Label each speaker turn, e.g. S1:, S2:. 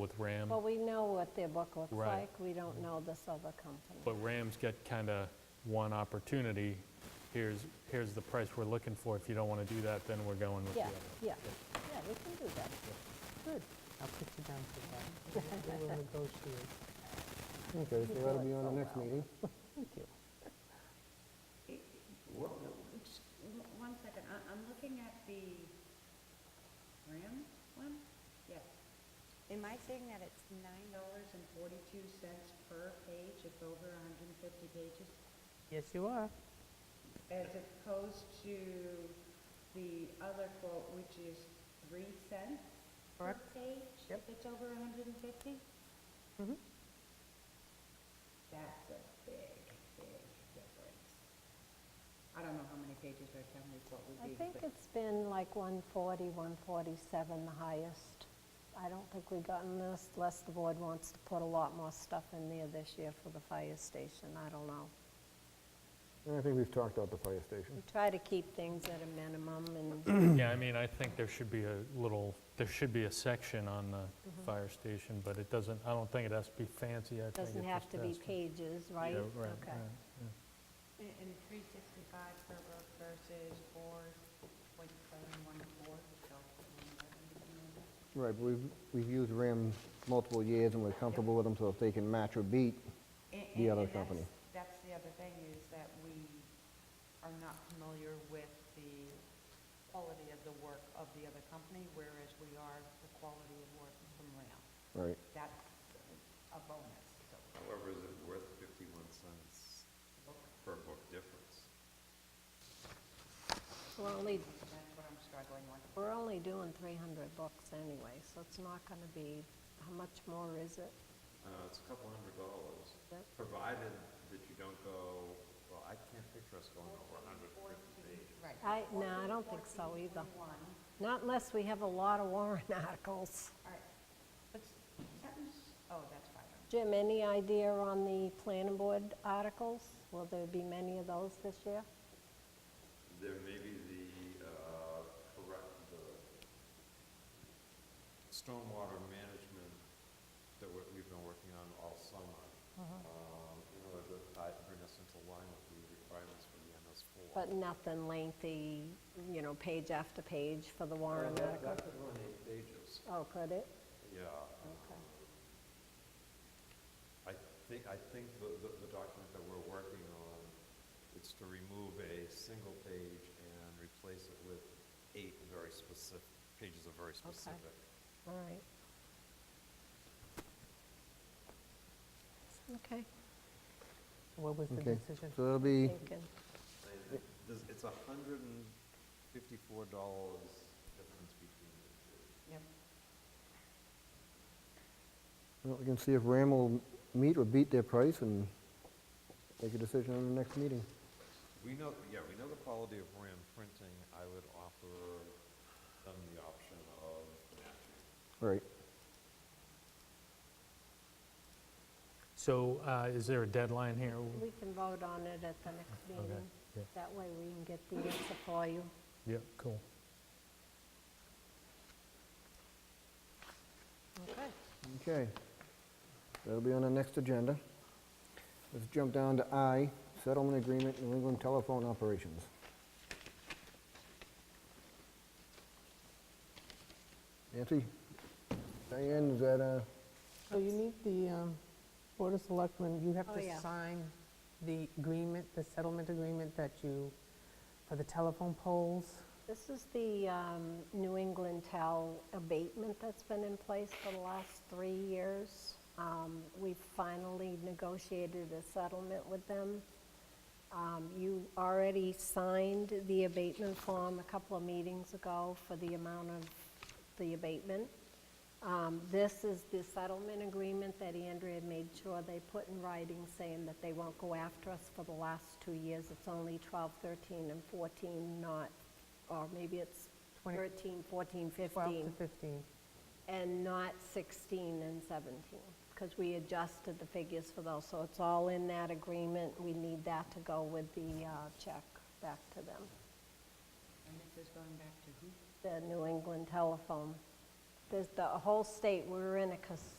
S1: with RAM,
S2: Well, we know what their book looks
S1: Right.
S2: like, we don't know this other company.
S1: but RAM's got kind of one opportunity. Here's, here's the price we're looking for. If you don't want to do that, then we're going with the
S2: Yeah,
S1: other.
S2: yeah, yeah, we can do that. Good.
S3: I'll put you down for that.
S4: We will negotiate.
S5: Okay, so that'll be on the next
S3: well.
S5: meeting.
S3: Thank you.
S6: Well, no, just one- one second, I, I'm looking at the RAM one, yes.
S7: Am I saying that it's nine
S6: Nine dollars and forty-two cents per page, it's over hundred and fifty pages,
S3: Yes, you are.
S6: as opposed to the other quote, which is three cents per
S3: Correct.
S6: page, if
S3: Yep.
S6: it's over hundred and fifty?
S2: Mm-hmm.
S3: Mhm.
S6: That's a big, big difference. I don't know how many pages our town report would
S2: I
S6: be,
S2: think
S6: but-
S2: it's been like 140, 147, the highest. I don't think we gotten this, unless the board wants to put a lot more stuff in there this year for the fire station, I don't know.
S5: And I think we've talked about the fire station.
S2: We try to keep things at a minimum, and
S1: Yeah, I mean, I think there should be a little, there should be a section on the
S2: Mm-hmm.
S1: fire station, but it doesn't, I don't think it has to be fancy. I think
S2: it
S1: it
S2: doesn't have
S1: just
S2: to be
S1: has
S2: pages, right?
S1: Yeah, right,
S2: Okay.
S1: right.
S7: And, and three sixty-five per book versus four point seven one four, so.
S5: Right, but we've, we've used RAM multiple years and we're comfortable with them, so if they can match or beat,
S7: And- and-
S5: The other
S7: and that's-
S5: company.
S7: That's the other thing, is that we are not familiar with the quality of the work of the other company, whereas we are the quality of work from RAM.
S5: right.
S7: That's a bonus, so.
S8: However, is it worth 51 cents per book difference?
S2: We're only,
S7: That's what I'm struggling with.
S2: we're only doing 300 books anyway, so it's not going to be, how much more is it?
S8: Uh, It's a couple hundred dollars,
S2: Yep.
S8: provided that you don't go, well, I can't picture us going over 150 pages.
S7: Right.
S2: I, no, I don't think so either. Not unless we have a lot of warrant articles.
S7: All right, but s- sentence, oh, that's five hundred.
S2: Jim, any idea on the planning board articles? Will there be many of those this year?
S8: There may be the uh, correct, the stormwater management that we- we've been working on all summer, um, in order to tie- bring us into line with the requirements for the MS4.
S2: But nothing lengthy, you know, page after page for the
S8: Uh,
S2: warrant
S8: That
S2: article?
S8: that could run eight pages.
S2: Oh, could it?
S8: Yeah. I think, I think the, the the document that we're working on, it's to remove a single page and replace it with eight very specific, pages of very specific.
S2: All right. Okay,
S3: What was the
S5: Okay,
S3: decision?
S5: so that'll be,
S2: thinking.
S8: And it- there's- It's a hundred and fifty-four dollars difference between the two.
S7: Yep.
S5: well, we can see if RAM will meet or beat their price and make a decision on the next meeting.
S8: We know, yeah, we know the quality of RAM printing. I would offer them the option of
S5: Right.
S8: matching.
S1: So uh, is there a deadline here?
S2: We can vote on it at the next meeting.
S1: yeah.
S2: That way we can get the answer for you.
S1: Yeah, cool.
S2: Okay.
S5: Okay. That'll be on the next agenda. Let's jump down to I, settlement agreement, New England telephone operations. Nancy? Diane, is that, uh,
S3: So you need the um, Board of Selectmen, you have
S2: Oh, yeah.
S3: to sign the agreement, the settlement agreement that you, for the telephone poles.
S2: This is the um, New England Tel abatement that's been in place for the last three years. Um, We finally negotiated a settlement with them. Um, You already signed the abatement form a couple of meetings ago for the amount of the abatement. Um, This is the settlement agreement that Andrea made sure they put in writing saying that they won't go after us for the last two years. It's only 12, 13, and 14, not, or maybe it's
S3: Twenty-
S2: 13, 14,
S3: 12 to
S2: 15,
S3: 15.
S2: and not 16 and 17, because we adjusted the figures for those. So it's all in that agreement. We need that to go with the uh, check back to them,
S6: And this is going back to who?
S2: the New England telephone. There's the whole state, we were in a cus-